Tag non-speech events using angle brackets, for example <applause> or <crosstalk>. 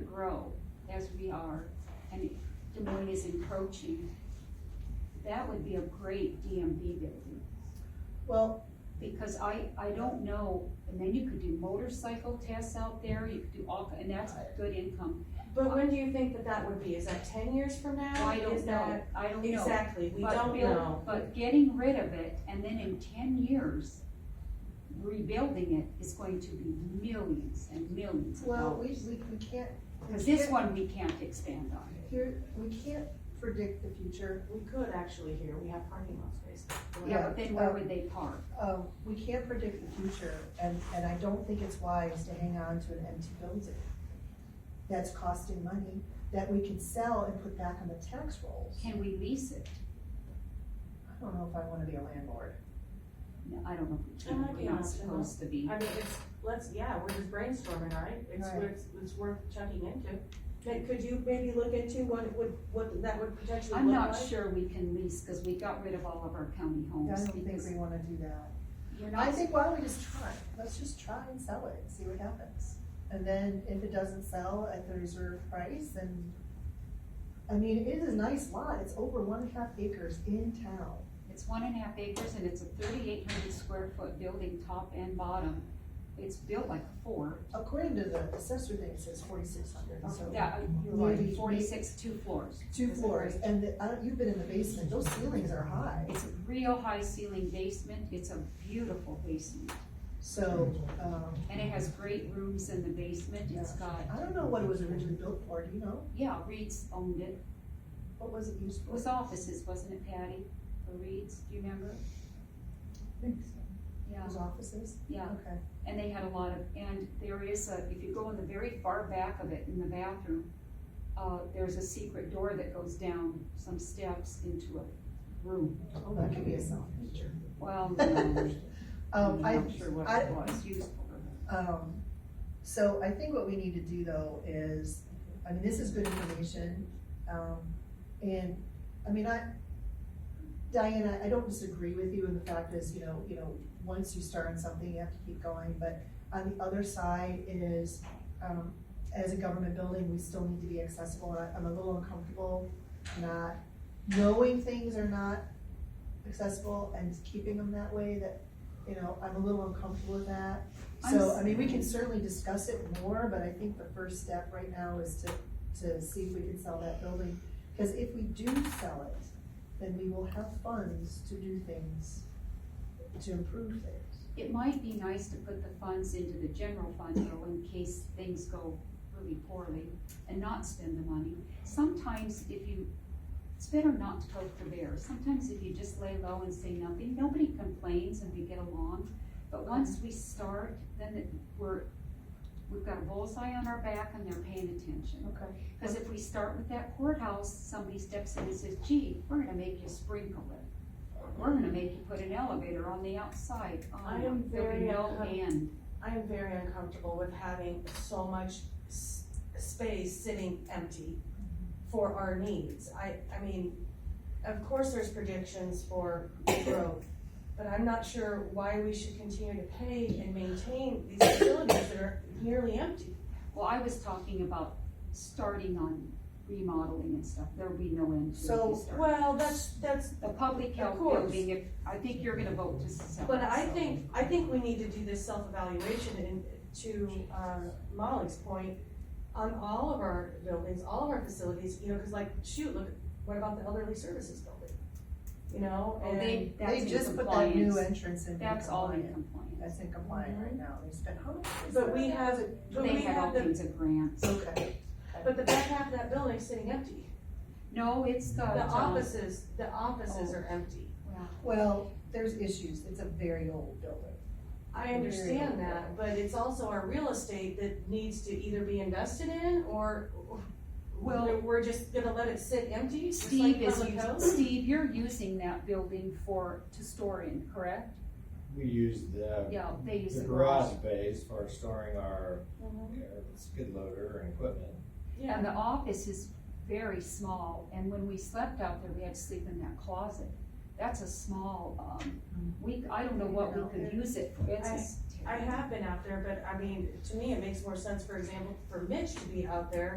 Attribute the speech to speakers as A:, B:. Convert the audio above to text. A: grow as we are, and Des Moines is encroaching, that would be a great DMV building.
B: Well,
A: Because I, I don't know, and then you could do motorcycle tests out there, you could do all, and that's good income.
C: But when do you think that that would be? Is that ten years from now?
A: I don't
C: Is
A: know,
C: that-
A: I don't know.
C: Exactly, we
A: But
C: don't
A: build-
C: know.
A: But getting rid of it and then in ten years, rebuilding it is going to be millions and millions of
B: well, we,
A: dollars.
B: we, we can't. we
A: Cause this
B: can't-
A: one we can't expand on.
B: Here, we can't predict the future,
C: We could actually here, we have parking lot space.
A: Yeah,
B: Yeah,
A: but then where
B: um,
A: would they park?
B: um, we can't predict the future, and, and I don't think it's wise to hang on to an empty building that's costing money, that we can sell and put back on the tax rolls.
A: Can we lease it?
B: I don't know if I wanna be a landlord.
A: No, I don't know. if we
C: That might
A: can.
C: be
A: We're
C: an
A: not
C: option, huh?
A: supposed to be.
C: I mean, it's, let's, yeah, we're just brainstorming, right? It's,
B: Right.
C: it's, it's worth checking into. Could, could you maybe look into what it would, what that would potentially
A: I'm
C: look
A: not
C: like?
A: sure we can lease, cause we got rid of all of our county
B: I
A: homes
B: don't think
A: because
B: we wanna do that.
A: you're
B: I
A: not,
B: think why don't we just try, let's just try and sell it, see what happens. And then if it doesn't sell at the reserve price, then, I mean, it is a nice lot, it's over one and a half acres in town.
A: it's one and a half acres and it's a thirty-eight hundred square foot building, top and bottom. It's built like a fort.
B: According to the assessor thing, it says forty-six hundred, so.
A: Yeah, you're
B: Maybe-
A: right, forty-six, two floors.
B: Two
A: Is that
B: floors,
A: right?
B: and the- I don't, you've been in the basement, those ceilings are high,
A: It's a real high ceiling basement, it's a beautiful basement,
B: so, um,
A: and it has great rooms in the basement, it's got,
B: I don't know what it was originally built for, do you know?
A: yeah, Reed's owned it.
B: What was it used
A: It
B: for?
A: was offices, wasn't it Patty, for Reed's, do you remember?
B: It
A: Yeah,
B: was offices?
A: yeah,
B: Okay,
A: and they had a lot of, and there is a, if you go in the very far back of it in the bathroom, uh, there's a secret door that goes down some steps into a room.
B: oh, that could be a self feature.
A: <laughs> Well, no, I'm
B: <laughs> Um, I,
A: not sure what
B: I,
A: it was used for.
B: Um, so I think what we need to do though is, I mean, this is good information, um, and, I mean, I, Diana, I don't disagree with you in the fact is, you know, you know, once you start on something, you have to keep going, but on the other side is, um, as a government building, we still need to be accessible, and I- I'm a little uncomfortable not knowing things are not accessible and keeping them that way, that, you know, I'm a little uncomfortable with that.
A: I'm
B: So,
A: s-
B: I mean, we can certainly discuss it more, but I think the first step right now is to, to see if we can sell that building. Because if we do sell it, then we will have funds to do things, to improve things.
A: It might be nice to put the funds into the general fund though, in case things go really poorly and not spend the money. Sometimes if you, it's better not to poke the bear. Sometimes if you just lay low and say nothing, nobody complains and we get along. But once we start, then it- we're, we've got a bullseye on our back and they're paying attention.
B: Okay.
A: Cause if we start with that courthouse, somebody steps in and says, gee, we're gonna make you sprinkle it. We're gonna make you put an elevator on the outside. Oh,
C: I am
A: there'll be
C: very
A: no
C: uncom-
A: end.
C: I am very uncomfortable with having so much s- space sitting empty for our needs. I, I mean, of course there's predictions for growth, but I'm not sure why we should continue to pay and maintain these facilities that are nearly empty.
A: Well, I was talking about starting on remodeling and stuff. There'll be no end to it. if
B: So,
A: we start.
C: Well, that's, that's,
A: The public health
C: Of course.
A: building, if, I think you're gonna vote to sell it,
C: but I
A: so.
C: think, I think we need to do this self-evaluation and to, uh, Molly's point, on all of our buildings, all of our facilities, you know, cause like, shoot, look, what about the elderly services building? You know,
A: Oh,
C: and
A: they, that's
B: They
A: in
B: just put that new
A: compliance.
B: entrance in.
A: That's all in
B: compliant.
A: compliance.
B: That's in compliant right now, they spent how much? is
C: But
B: that?
C: we have- but
A: They
C: we
A: have all
C: have the,
A: kinds of grants.
B: Okay,
C: but the back half of that building is sitting empty.
A: No, it's Oh. the,
C: The
A: um,
C: offices, the offices are empty.
A: well,
B: well, there's issues, it's a very old building.
C: I understand that, but it's also our real estate that needs to either be invested in or
A: Well-
C: we're, we're just gonna let it sit empty, just like
A: Steve is,
C: public
A: us-
C: house?
A: Steve, you're using that building for, to store in, correct?
D: We use the,
A: Yeah, they use
D: the
A: the
D: garage
A: garage.
D: space for storing our, our skid loader and equipment.
C: Mm-hmm. Yeah.
A: And the office is very small, and when we slept out there, we had to sleep in that closet. That's a small, um, we, I don't know what we could use it for, it's just
C: Mm-hmm. I
A: terrible.
C: have been out there, but I mean, to me, it makes more sense, for example, for Mitch to be out there